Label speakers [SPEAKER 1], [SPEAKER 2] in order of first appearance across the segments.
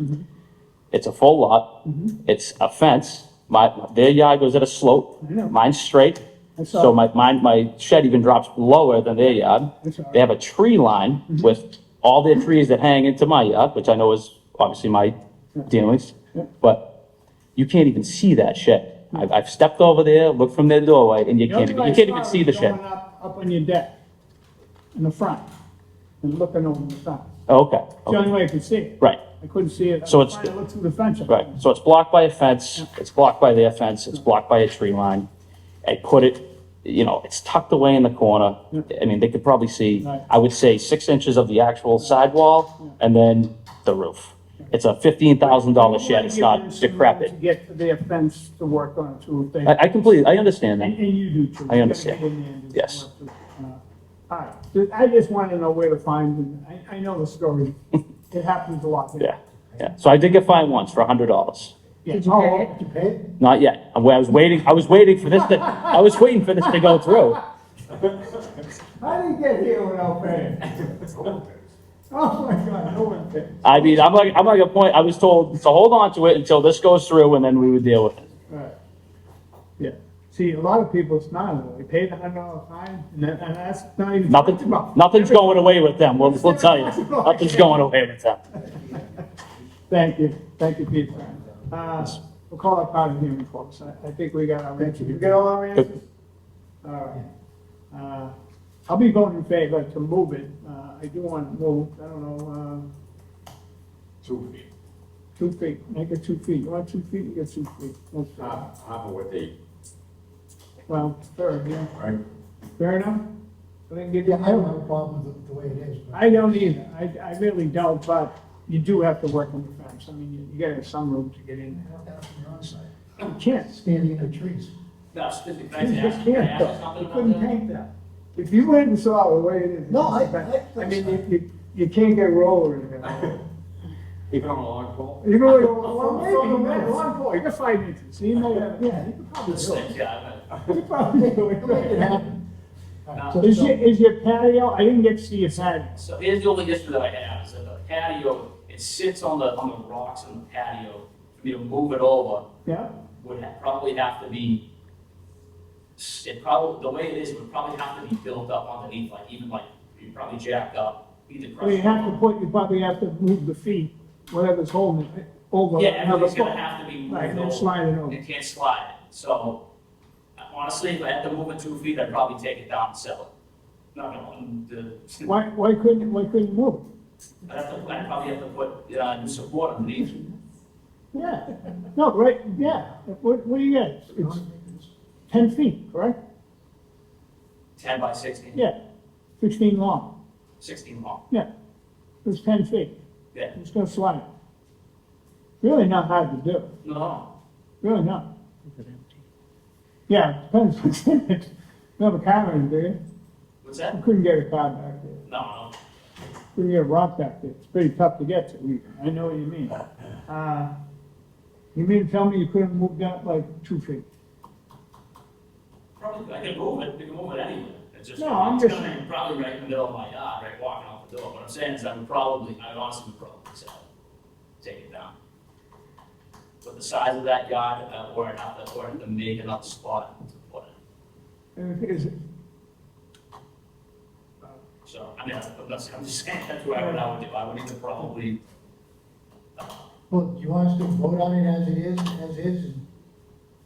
[SPEAKER 1] Mm-hmm. It's a full lot.
[SPEAKER 2] Mm-hmm.
[SPEAKER 1] It's a fence. My, their yard goes at a slope.
[SPEAKER 2] I know.
[SPEAKER 1] Mine's straight.
[SPEAKER 2] I saw
[SPEAKER 1] So
[SPEAKER 2] it.
[SPEAKER 1] my, mine, my shed even drops lower than their yard.
[SPEAKER 2] I saw it.
[SPEAKER 1] They have a tree line
[SPEAKER 2] Mm-hmm.
[SPEAKER 1] with all their trees that hang into my yard, which I know is obviously my dealings. But you can't even see that shed. I've, I've stepped over there, looked from their doorway, and you
[SPEAKER 2] Mm-hmm. The
[SPEAKER 1] can't, even-
[SPEAKER 2] only way
[SPEAKER 1] you
[SPEAKER 2] I
[SPEAKER 1] can't even
[SPEAKER 2] saw
[SPEAKER 1] see
[SPEAKER 2] it
[SPEAKER 1] the
[SPEAKER 2] was
[SPEAKER 1] shed.
[SPEAKER 2] going Up up on your deck, in the front, and looking over the side.
[SPEAKER 1] Okay,
[SPEAKER 2] It's the only
[SPEAKER 1] okay,
[SPEAKER 2] way I could see it.
[SPEAKER 1] right.
[SPEAKER 2] I couldn't see it. I
[SPEAKER 1] So
[SPEAKER 2] was
[SPEAKER 1] it's-
[SPEAKER 2] trying to look through the fence.
[SPEAKER 1] Right, so it's blocked by a fence, it's blocked by their fence, it's blocked by a tree line. I put it, you know, it's tucked away in the corner. I mean, they could probably see,
[SPEAKER 2] Right.
[SPEAKER 1] I would say, six inches of the actual sidewall and then the roof. It's a fifteen thousand dollar shed, it's not
[SPEAKER 2] To
[SPEAKER 1] decrepit.
[SPEAKER 2] get to their fence to work on too, if they.
[SPEAKER 1] I, I completely, I understand
[SPEAKER 2] And,
[SPEAKER 1] that.
[SPEAKER 2] and you do too.
[SPEAKER 1] I understand.
[SPEAKER 2] You gotta get in there and do
[SPEAKER 1] Yes.
[SPEAKER 2] some work, too. Uh, All right, I just wanted to know where to find, them. I, I know the story. It happens a lot.
[SPEAKER 1] Yeah, yeah. So I did get fined once for a hundred dollars.
[SPEAKER 2] Oh, Did you pay it?
[SPEAKER 1] Not yet. I was waiting, I was waiting for this to, I was waiting for this to go through.
[SPEAKER 2] I didn't get here without paying. Oh my God, no one pays.
[SPEAKER 1] I mean, I'm like, I'm like a point, I was told to hold on to it until this goes through and then we would deal with it.
[SPEAKER 2] Right. Yeah, see, a lot of people, it's not, they pay the hundred dollar fine, and that, and that's not even.
[SPEAKER 1] Nothing, nothing's going away with them, we'll, we'll tell you, nothing's going away with them.
[SPEAKER 2] Thank you, thank you, Pete. Uh, we'll call it part of hearing, folks, I, I think we got our answers. You get all our answers? All right. Uh, I'll be voting in favor to move it, uh, I do want to move, I don't know, uh,
[SPEAKER 3] two feet.
[SPEAKER 2] two feet, make it two feet, you want two feet, you get two feet. That's fair.
[SPEAKER 3] Half, half of what they,
[SPEAKER 2] Well, fair, yeah,
[SPEAKER 3] right?
[SPEAKER 2] fair enough? I didn't give you.
[SPEAKER 4] Yeah, I don't have a problem with it the way it is, but
[SPEAKER 2] I don't either, I, I really don't, but you do have to work on the fence, I mean, you- you gotta have some room to get in
[SPEAKER 4] I don't have it from your own side,
[SPEAKER 2] there. You can't,
[SPEAKER 4] standing in the trees.
[SPEAKER 5] No, specifically, can
[SPEAKER 2] you
[SPEAKER 5] I
[SPEAKER 2] just
[SPEAKER 5] ask, can I
[SPEAKER 2] can't,
[SPEAKER 5] ask
[SPEAKER 2] though.
[SPEAKER 5] something
[SPEAKER 2] you
[SPEAKER 5] about
[SPEAKER 2] couldn't
[SPEAKER 5] that?
[SPEAKER 2] paint that. If you went and saw it the way it is.
[SPEAKER 4] No, I- I-
[SPEAKER 2] I mean, you, you, you can't get roller in there.
[SPEAKER 3] Even on a long pole?
[SPEAKER 2] Even with, well,
[SPEAKER 4] Well,
[SPEAKER 2] maybe,
[SPEAKER 4] maybe,
[SPEAKER 2] man,
[SPEAKER 4] yes.
[SPEAKER 2] one point, you're five inches, so you may have, yeah, you could probably
[SPEAKER 5] This
[SPEAKER 2] do it.
[SPEAKER 5] thing, yeah, I
[SPEAKER 2] You could probably do
[SPEAKER 4] Make it
[SPEAKER 2] it.
[SPEAKER 4] happen. All right,
[SPEAKER 5] Nah.
[SPEAKER 4] so-
[SPEAKER 2] Is
[SPEAKER 4] so-
[SPEAKER 2] your, is your patio, I didn't get to see your patio.
[SPEAKER 5] know. So here's the only issue that I have, is that the patio, it sits on the, on the rocks in the patio. For me to move it over
[SPEAKER 2] Yeah,
[SPEAKER 5] would ha- probably have to be, it probably, the way it is, it would probably have to be built up underneath, like even like, you probably jacked up, either
[SPEAKER 2] well, you
[SPEAKER 5] crushed.
[SPEAKER 2] have to put, you probably have to move the feet, whatever's holding it, over.
[SPEAKER 5] Yeah,
[SPEAKER 2] another
[SPEAKER 5] everything's gonna
[SPEAKER 2] foot.
[SPEAKER 5] have to
[SPEAKER 2] Right,
[SPEAKER 5] be moved
[SPEAKER 2] and then
[SPEAKER 5] over.
[SPEAKER 2] slide it over.
[SPEAKER 5] It can't slide, so honestly, if I had to move it two feet, I'd probably take it down and sell it. No, no, the,
[SPEAKER 2] Why, why couldn't, why couldn't you move it?
[SPEAKER 5] I'd have to, I'd probably have to put, uh, new support underneath.
[SPEAKER 2] Yeah, no, right, yeah, what, what do you got? It's ten feet, correct?
[SPEAKER 5] ten by sixteen,
[SPEAKER 2] Yeah, sixteen long,
[SPEAKER 5] sixteen long,
[SPEAKER 2] yeah, it's ten feet,
[SPEAKER 5] yeah,
[SPEAKER 2] it's gonna slide. Really not hard to do,
[SPEAKER 5] no, no.
[SPEAKER 2] really not. Yeah, depends what's in it, you have a car in there,
[SPEAKER 5] what's
[SPEAKER 2] I
[SPEAKER 5] that?
[SPEAKER 2] couldn't get a car back there,
[SPEAKER 5] No, no,
[SPEAKER 2] couldn't get a rock back there, it's pretty tough to get to, even. I know what you mean. Uh, You mean to tell me you couldn't move that like two feet?
[SPEAKER 5] probably, I can move it, we can move it anywhere, it's just.
[SPEAKER 2] No, I'm
[SPEAKER 5] it's
[SPEAKER 2] just-
[SPEAKER 5] gonna be Probably right in the middle of my yard, right, walking out the door, what I'm saying is I would probably, I would honestly would probably sell it, take it down. But the size of that yard, uh, or enough, or to make another spot to put it,
[SPEAKER 2] And the thing is,
[SPEAKER 5] so, I mean, I'm not, I'm just saying, that's what I would, I would do, I would either probably, uh,
[SPEAKER 4] Well, do you want us to vote on it as it is, as is, and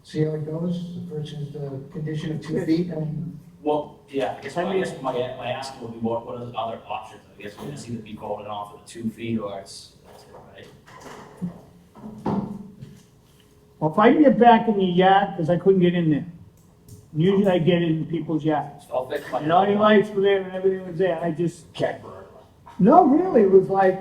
[SPEAKER 4] see how it goes, the first is the condition of two feet, I mean,
[SPEAKER 5] Well, yeah, I guess,
[SPEAKER 2] I
[SPEAKER 5] my- I
[SPEAKER 2] mean-
[SPEAKER 5] guess my, my asking would be what, what are the other options? I guess we're gonna see the be voted off at the two feet or it's, that's it, right?
[SPEAKER 2] Well, if I can get back in the yard, because I couldn't get in there. Usually I get in people's yards.
[SPEAKER 5] So I'll fix my.
[SPEAKER 2] And all your lights were there and everything was there, I just,
[SPEAKER 5] Cat burglar.
[SPEAKER 2] no, really, it was like,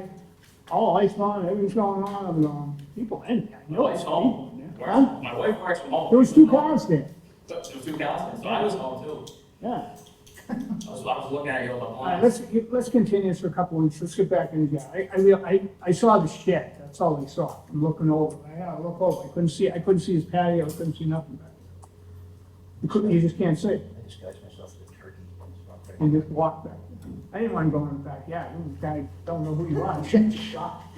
[SPEAKER 2] all lights on, everything's going on, I'm going, people in there, I
[SPEAKER 5] My
[SPEAKER 2] know it's
[SPEAKER 5] wife's
[SPEAKER 2] people
[SPEAKER 5] home.
[SPEAKER 2] in there. Huh?
[SPEAKER 5] Works- My wife works from home.
[SPEAKER 2] There was two cars there,
[SPEAKER 5] There was two cars, so I was home too.
[SPEAKER 2] yeah.
[SPEAKER 5] I was, I was looking at you over the
[SPEAKER 2] All right,
[SPEAKER 5] blind.
[SPEAKER 2] let's, let's continue this for a couple weeks, let's get back in the yard. I, I real, I, I saw the shed, that's all I saw, I'm looking over, I gotta look over, I couldn't see, I couldn't see his patio, I couldn't see nothing back there. You couldn't, you just can't see.
[SPEAKER 6] I disguise myself as a turkey.
[SPEAKER 2] and just walk back. I didn't want to go in the backyard, this guy don't know who you are, shit, shocked.